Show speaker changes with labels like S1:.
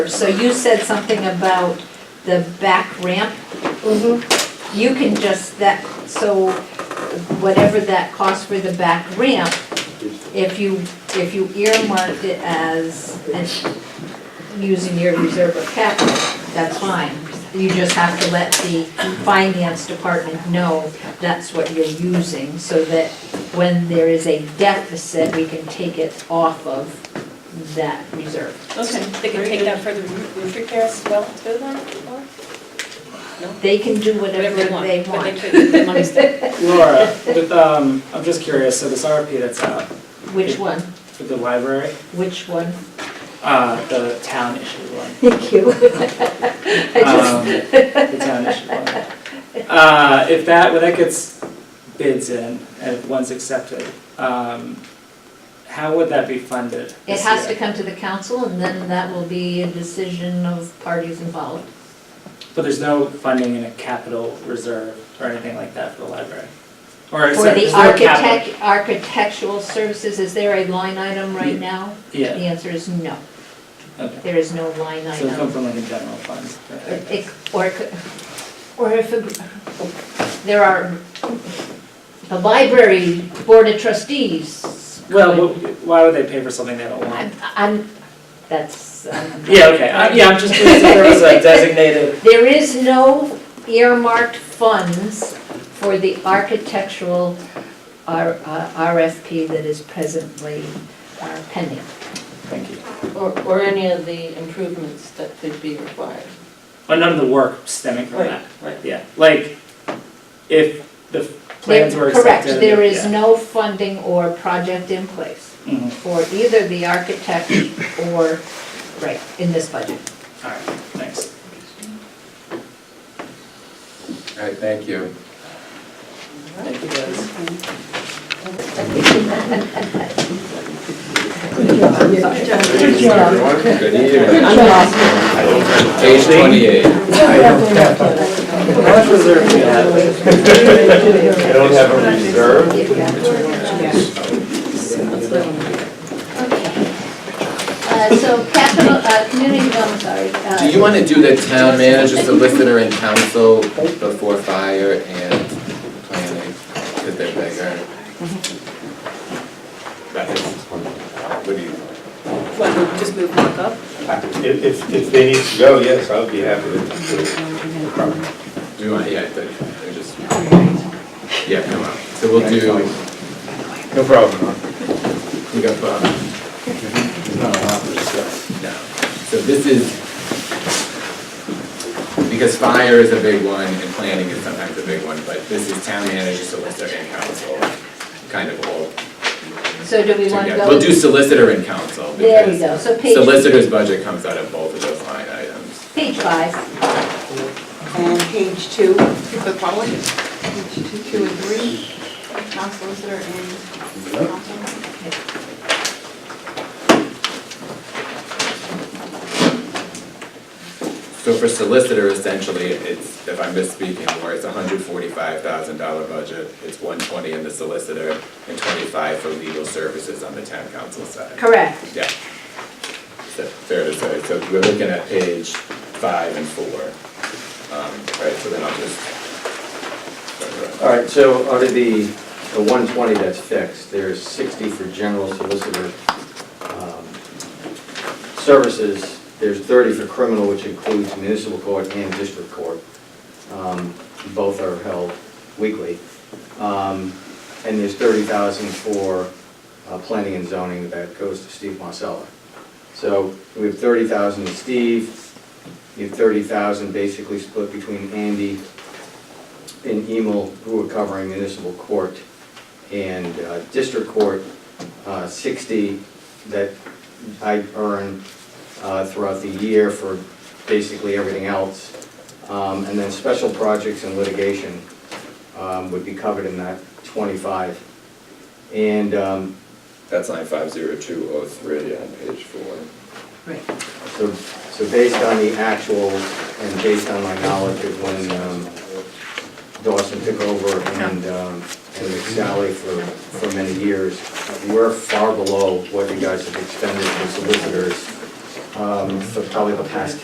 S1: So you said something about the back ramp.
S2: Mm-hmm.
S1: You can just, that, so whatever that cost for the back ramp, if you, if you earmarked it as, an- using your reserve of capital, that's fine. You just have to let the finance department know that's what you're using, so that when there is a deficit, we can take it off of that reserve.
S3: Okay.
S2: They can take that for the roof roof repair as well too then, or
S1: They can do whatever
S2: whatever they want.
S1: they
S2: But they
S1: want,
S2: could, they want to,
S4: Laura, with, um, I'm just curious, so this RFP that's out
S1: which one,
S4: for the library,
S1: which one,
S4: uh, the town issued one.
S1: thank you. I
S4: Um, The town issued one. Uh, if that, when that gets bids in, and if one's accepted, um, how would that be funded?
S1: just, it
S4: this
S1: has to
S4: year?
S1: come to the council, and then that will be a decision of parties involved.
S4: But there's no funding in a capital reserve or anything like that for the library? Or is
S1: For
S4: there-
S1: the
S4: is there a capital-
S1: architect, architectural services, is there a line item right now? The
S4: Yeah,
S1: answer is no,
S4: okay.
S1: there is no line
S4: So it comes
S1: item.
S4: from like a general fund?
S1: It- Or, it could- or if, it- there are, the library board of trustees.
S4: Well, wh- why would they pay for something they don't want?
S1: I'm, I'm, that's, um,
S4: Yeah, okay, I- yeah, I'm just curious if there was a designated,
S1: There is no earmarked funds for the architectural R- uh, RFP that is presently uh, pending.
S4: thank you,
S3: Or, or any of the improvements that could be required.
S4: but none of the work stemming from that,
S3: right.
S4: yeah, like, if the plans were accepted.
S1: Correct, there is
S4: yeah.
S1: no funding or project in place
S4: Mhm,
S1: for either the architect or, right, in this budget.
S4: all right, thanks.
S5: All right, thank you.
S4: Thank you guys.
S5: Good evening, everyone. Good evening. Page twenty-eight.
S4: How much reserve do you have?
S5: I don't have a reserve.
S1: Uh, So capital, uh, community development, sorry. uh,
S5: Do you want to do the town manager, solicitor, and council before fire and planning? Because they're bigger. What do you?
S2: what, we just move back up?
S6: If, if, if they need to go, yes, I would be happy to do it.
S5: Do you want, yeah, I I just. Yeah, come on. So we'll do,
S6: No problem.
S5: we got, uh, No. So this is, because fire is a big one and planning is sometimes a big one, but this is town manager, solicitor, and council, kind of all
S1: So do we want to
S5: together.
S1: go?
S5: We'll do solicitor and council.
S1: There we
S5: because
S1: go, so page,
S5: Solicitor's budget comes out of both of those line items.
S1: page five,
S7: And page two, the following, page two, two and three, town solicitor and council.
S5: So for solicitor, essentially, it's, if I'm misspeaking, where it's a hundred forty-five thousand dollar budget, it's one twenty in the solicitor and twenty-five for legal services on the town council side.
S1: correct.
S5: Yeah. That's Fair to say, so we're looking at page five and four. Um, Right, so then I'll just.
S8: All right, so out of the, the 120 that's fixed, there's 60 for general solicitor um, services, there's 30 for criminal, which includes municipal court and district court. Um, Both are held weekly. Um, And there's 30,000 for uh, planning and zoning that goes to Steve Marcella. So we have 30,000 to Steve, you have 30,000 basically split between Andy in Emil, who are covering municipal court and uh, district court, uh, 60 that I earn uh, throughout the year for basically everything else. Um, And then special projects and litigation um, would be covered in that 25. And um,
S5: That's line five zero two oh three on page four.
S1: Right.
S8: So, so based on the actuals and based on my knowledge of when um, Dawson took over and, um, and McSally for, for many years, we're far below what you guys have expended for solicitors um, for probably the past